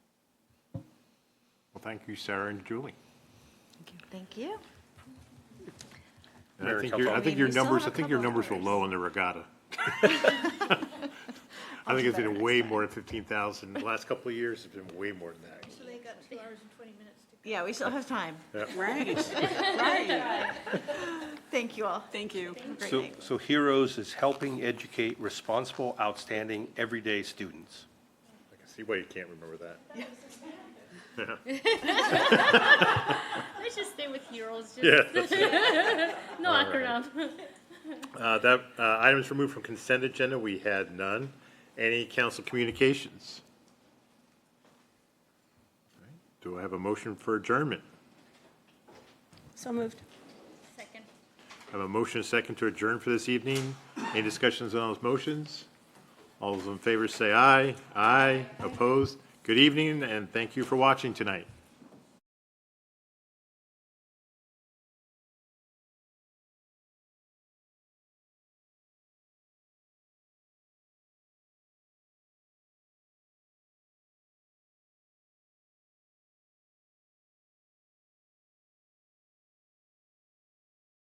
Well, thank you, Sarah and Julie. Thank you. And Mayor I and think your, I council. think your We still have numbers, a I think your couple numbers were hours. low on the regatta. I think it's better been next way more than fifteen thousand. The last couple of years, it's been way more than that. Yeah, we still have time. Right, Thank you all. thank you. Great So, night. so Heroes is helping educate responsible, outstanding, everyday students. I can see why you can't remember that. Let's just stay with heroes. Just Yeah, that's it. no All acronym. Uh, that, uh, items removed from consent agenda, we had none. Any council communications? Do I have a motion for adjournment? So moved. Second. I have a motion and a second to adjourn for this evening. Any discussions on those motions? All those in favor say aye. Aye. Opposed? Good evening, and thank you for watching tonight.